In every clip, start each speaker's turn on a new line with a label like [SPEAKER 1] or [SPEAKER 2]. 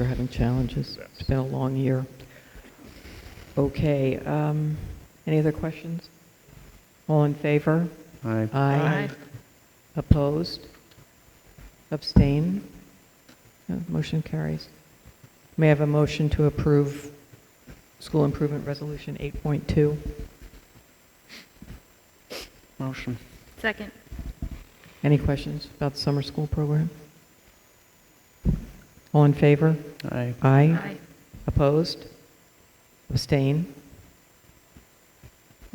[SPEAKER 1] We're having challenges.
[SPEAKER 2] Yes.
[SPEAKER 1] It's been a long year. Okay, um, any other questions? All in favor?
[SPEAKER 3] Aye.
[SPEAKER 1] Aye. Opposed? Abstain? No, Motion carries. May I have a motion to approve School Improvement Resolution 8.2?
[SPEAKER 3] Motion.
[SPEAKER 4] Second.
[SPEAKER 1] Any questions about the summer school program? All in favor?
[SPEAKER 3] Aye.
[SPEAKER 1] Aye. Opposed? Abstain?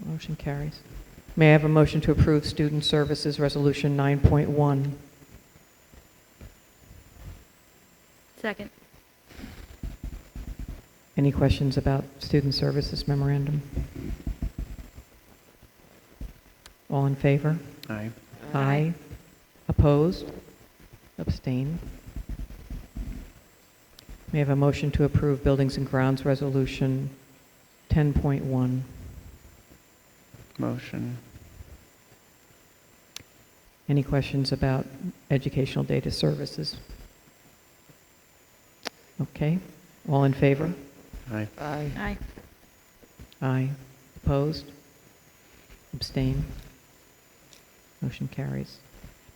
[SPEAKER 1] Motion carries. May I have a motion to approve Student Services Resolution 9.1?
[SPEAKER 4] Second.
[SPEAKER 1] Any questions about Student Services Memorandum? All in favor?
[SPEAKER 3] Aye.
[SPEAKER 1] Aye. Opposed? Abstain? May I have a motion to approve Buildings and Grounds Resolution 10.1?
[SPEAKER 3] Motion.
[SPEAKER 1] Any questions about educational data services? Okay, all in favor?
[SPEAKER 3] Aye.
[SPEAKER 2] Aye.
[SPEAKER 4] Aye.
[SPEAKER 1] Aye. Opposed? Abstain? Motion carries.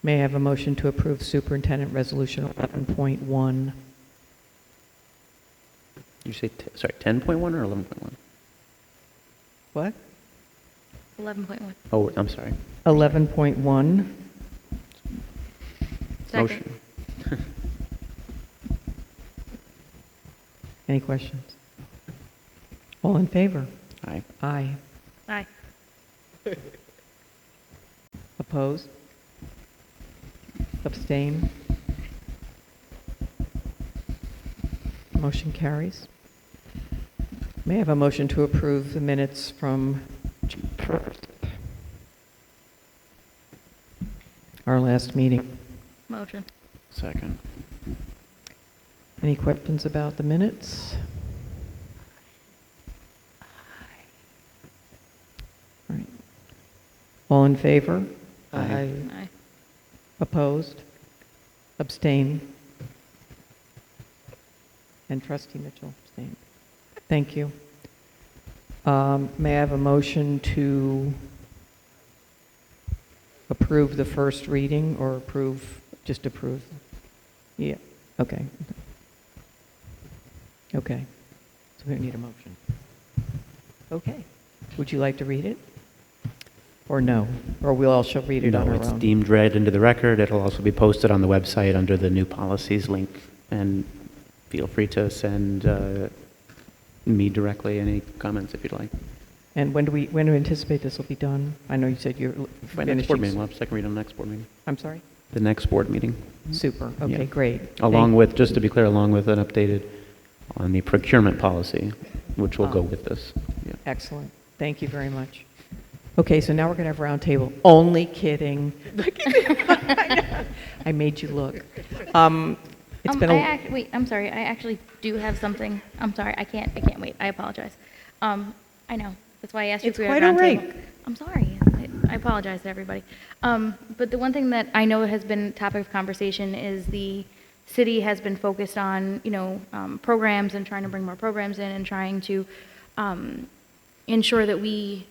[SPEAKER 1] May I have a motion to approve Superintendent Resolution 11.1?
[SPEAKER 3] You say, t- sorry, 10.1 or 11.1?
[SPEAKER 1] What?
[SPEAKER 4] 11.1.
[SPEAKER 3] Oh, I'm sorry.
[SPEAKER 1] 11.1.
[SPEAKER 4] Second.
[SPEAKER 3] Motion.
[SPEAKER 1] Any questions? All in favor?
[SPEAKER 3] Aye.
[SPEAKER 1] Aye.
[SPEAKER 4] Aye.
[SPEAKER 1] Opposed? Abstain? Motion carries. May I have a motion to approve the minutes from June 1st? Our last meeting.
[SPEAKER 4] Motion.
[SPEAKER 3] Second.
[SPEAKER 1] Any questions about the minutes? All right. All in favor?
[SPEAKER 3] Aye.
[SPEAKER 4] Aye.
[SPEAKER 1] Opposed? Abstain? And trustee Mitchell abstained. Thank you. Um, May I have a motion to approve the first reading or approve, just approve? Yeah, okay. Okay, so we don't need a motion. Okay, would you like to read it? Or no? Or we all shall read it on
[SPEAKER 5] No,
[SPEAKER 1] our
[SPEAKER 5] it's
[SPEAKER 1] own?
[SPEAKER 5] deemed read into the record. It'll also be posted on the website under the new policies link. And feel free to send uh, me directly any comments if you'd like.
[SPEAKER 1] And when do we, when do we anticipate this will be done? I know you said you're l-
[SPEAKER 5] By next board meeting,
[SPEAKER 1] finishing.
[SPEAKER 5] we'll have a second read on the next board meeting.
[SPEAKER 1] I'm sorry?
[SPEAKER 5] The next board meeting.
[SPEAKER 1] Super, okay,
[SPEAKER 5] Mm-hmm. Yeah.
[SPEAKER 1] great.
[SPEAKER 5] Along
[SPEAKER 1] Thank-
[SPEAKER 5] with, just to be clear, along with an updated on the procurement policy, which will go
[SPEAKER 1] Oh.
[SPEAKER 5] with this. Yeah.
[SPEAKER 1] Excellent, thank you very much. Okay, so now we're going to have roundtable. Only kidding. I made you look. Um, It's
[SPEAKER 4] Um,
[SPEAKER 1] been
[SPEAKER 4] I
[SPEAKER 1] a,
[SPEAKER 4] act, wait, I'm sorry. I actually do have something. I'm sorry. I can't, I can't wait. I apologize. Um, I know. That's why I asked you
[SPEAKER 1] It's
[SPEAKER 4] if we were
[SPEAKER 1] quite
[SPEAKER 4] roundtable.
[SPEAKER 1] all right.
[SPEAKER 4] I'm sorry. I- I apologize to everybody. Um, but the one thing that I know has been topic of conversation is the city has been focused on, you know, um, programs and trying to bring more programs in and trying to, um, ensure that we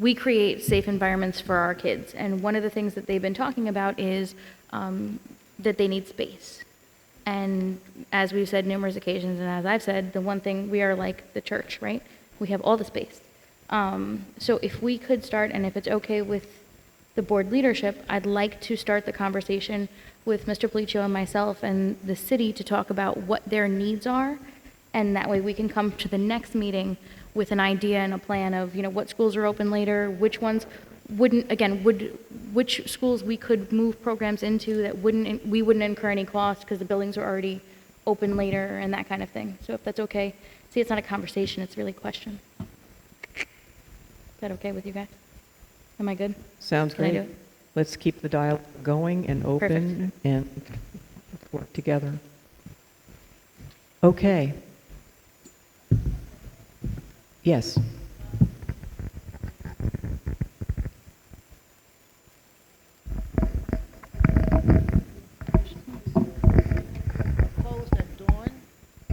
[SPEAKER 4] we create safe environments for our kids. And one of the things that they've been talking about is um, that they need space. And as we've said numerous occasions, and as I've said, the one thing we are like the church, right? We have all the space. Um, so if we could start, and if it's okay with the board leadership, I'd like to start the conversation with Mr. Policio and myself and the city to talk about what their needs are and that way we can come to the next meeting with an idea and a plan of, you know, what schools are open later, which ones wouldn't, again, would, which schools we could move programs into that wouldn't, we wouldn't incur any cost because the buildings are already open later and that kind of thing. So if that's okay, see, it's not a conversation, it's really a question. Is that okay with you guys? Am I good?
[SPEAKER 1] sounds
[SPEAKER 4] Can I do
[SPEAKER 1] great.
[SPEAKER 4] it?
[SPEAKER 1] Let's keep the dialogue going and open and work together. Okay. Yes.